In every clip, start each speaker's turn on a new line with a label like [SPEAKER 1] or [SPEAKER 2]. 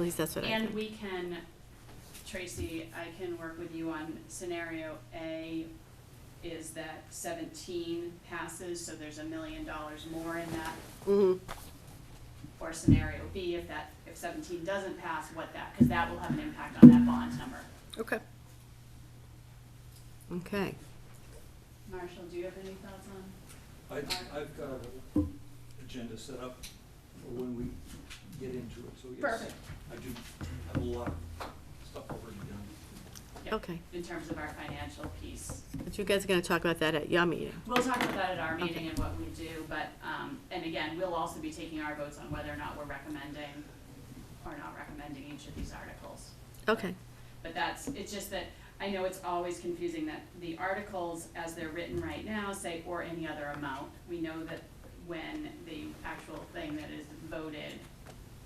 [SPEAKER 1] At least that's what I
[SPEAKER 2] And
[SPEAKER 1] think.
[SPEAKER 2] we can, Tracy, I can work with you on scenario A is that seventeen passes, so there's a million dollars more in that.
[SPEAKER 1] Mhm.
[SPEAKER 2] Or scenario B, if that, if seventeen doesn't pass, what that, because that will have an impact on that bond number.
[SPEAKER 1] Okay. Okay.
[SPEAKER 2] Marshall, do you have any thoughts on?
[SPEAKER 3] I, I've got an agenda set up for when we get into it, so yes.
[SPEAKER 2] Perfect.
[SPEAKER 3] I do have a lot of stuff already done.
[SPEAKER 2] Yeah,
[SPEAKER 1] Okay.
[SPEAKER 2] In terms of our financial piece.
[SPEAKER 1] But you guys are gonna talk about that at your meeting.
[SPEAKER 2] We'll talk about that at our meeting
[SPEAKER 1] Okay.
[SPEAKER 2] and what we do, but, um, and again, we'll also be taking our votes on whether or not we're recommending or not recommending each of these articles.
[SPEAKER 1] Okay.
[SPEAKER 2] But that's, it's just that, I know it's always confusing that the articles, as they're written right now, say, or any other amount. We know that when the actual thing that is voted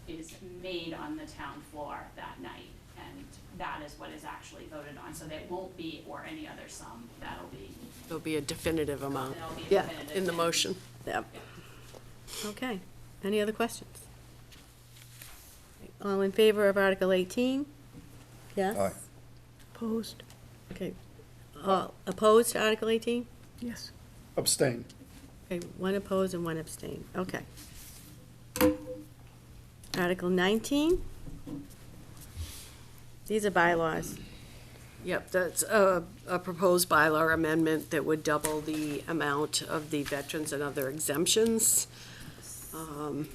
[SPEAKER 2] is made on the town floor that night, and that is what is actually voted on, so that won't be or any other sum, that'll be,
[SPEAKER 4] There'll be a definitive amount
[SPEAKER 2] that'll be
[SPEAKER 1] Yeah,
[SPEAKER 2] definitive.
[SPEAKER 4] in the
[SPEAKER 2] and-
[SPEAKER 4] motion.
[SPEAKER 1] Yep. Okay. Any other questions? All in favor of Article eighteen? Yes?
[SPEAKER 5] Aye.
[SPEAKER 1] Opposed? Okay. All opposed to Article eighteen?
[SPEAKER 6] Yes.
[SPEAKER 5] Abstain.
[SPEAKER 1] Okay, one opposed and one abstain. Okay. Article nineteen? These are bylaws.
[SPEAKER 4] Yep, that's a, a proposed bylaw amendment that would double the amount of the veterans and other exemptions. Um,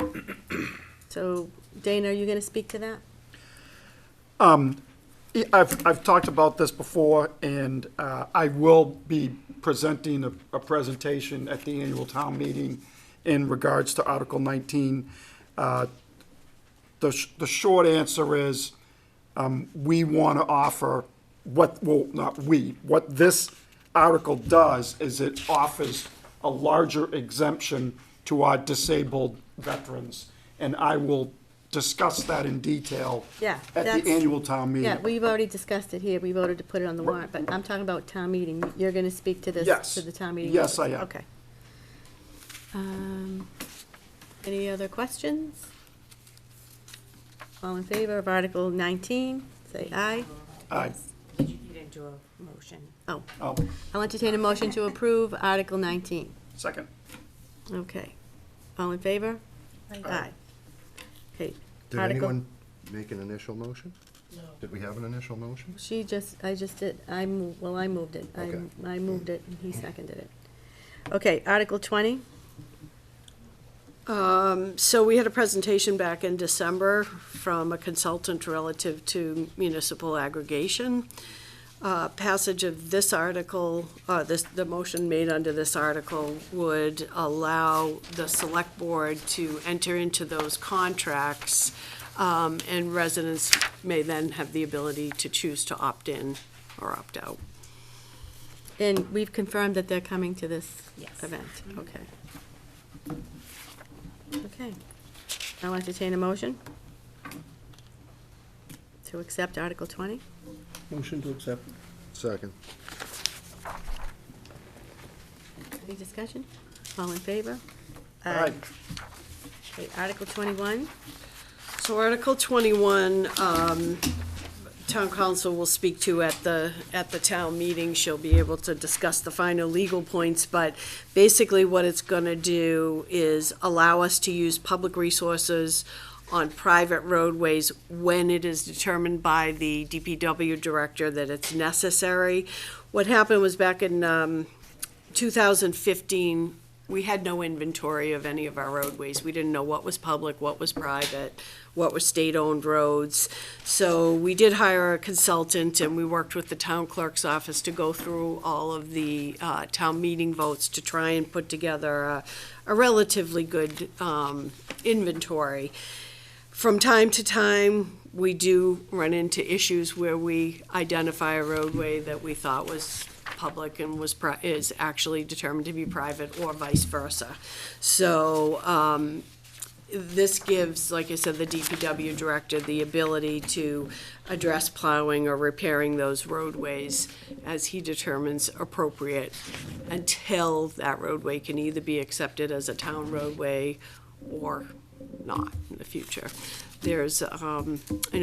[SPEAKER 1] So Dana, are you gonna speak to that?
[SPEAKER 5] I- I've, I've talked about this before, and uh, I will be presenting a, a presentation at the annual town meeting in regards to Article 19. Uh, The, sh- the short answer is, um, we want to offer what, well, not we, what this article does is it offers a larger exemption to our disabled veterans, and I will discuss that in detail
[SPEAKER 1] Yeah,
[SPEAKER 5] at
[SPEAKER 1] that's-
[SPEAKER 5] the annual town meeting.
[SPEAKER 1] Yeah, we've already discussed it here, we voted to put it on the warrant, but I'm talking about town meeting, you're gonna speak to this,
[SPEAKER 5] Yes.
[SPEAKER 1] to the town meeting?
[SPEAKER 5] Yes,
[SPEAKER 1] members.
[SPEAKER 5] I am.
[SPEAKER 1] Okay. Um, Any other questions? All in favor of Article nineteen, say aye.
[SPEAKER 5] Aye.
[SPEAKER 7] You didn't do a motion.
[SPEAKER 1] Oh,
[SPEAKER 5] Oh,
[SPEAKER 1] I'll entertain a motion to approve Article nineteen.
[SPEAKER 5] second.
[SPEAKER 1] Okay. All in favor? Aye. Okay.
[SPEAKER 8] Did
[SPEAKER 1] Article-
[SPEAKER 8] anyone make an initial motion? No. Did we have an initial motion?
[SPEAKER 1] She just, I just did, I, mo- well, I moved it. I,
[SPEAKER 8] Okay.
[SPEAKER 1] I moved it, and he seconded it. Okay, Article twenty?
[SPEAKER 4] Um, So we had a presentation back in December from a consultant relative to municipal aggregation. Uh, Passage of this article, uh, this, the motion made under this article would allow the select board to enter into those contracts, um, and residents may then have the ability to choose to opt in or opt out.
[SPEAKER 1] And we've confirmed that they're coming to this
[SPEAKER 7] Yes.
[SPEAKER 1] event, okay. Okay. I'll entertain a motion to accept Article twenty.
[SPEAKER 5] Motion to accept.
[SPEAKER 8] Second.
[SPEAKER 1] Any discussion? All in favor?
[SPEAKER 5] Aye.
[SPEAKER 1] Okay, Article twenty-one,
[SPEAKER 4] So Article 21, um, Town Council will speak to at the, at the town meeting. She'll be able to discuss the final legal points, but basically what it's going to do is allow us to use public resources on private roadways when it is determined by the DPW director that it's necessary. What happened was back in um, 2015, we had no inventory of any of our roadways. We didn't know what was public, what was private, what were state-owned roads. So we did hire a consultant, and we worked with the town clerk's office to go through all of the uh, town meeting votes to try and put together a a relatively good um, inventory. From time to time, we do run into issues where we identify a roadway that we thought was public and was, pri- is actually determined to be private or vice versa. So, um, this gives, like I said, the DPW director the ability to address plowing or repairing those roadways as he determines appropriate until that roadway can either be accepted as a town roadway or not in the future. There's, um, an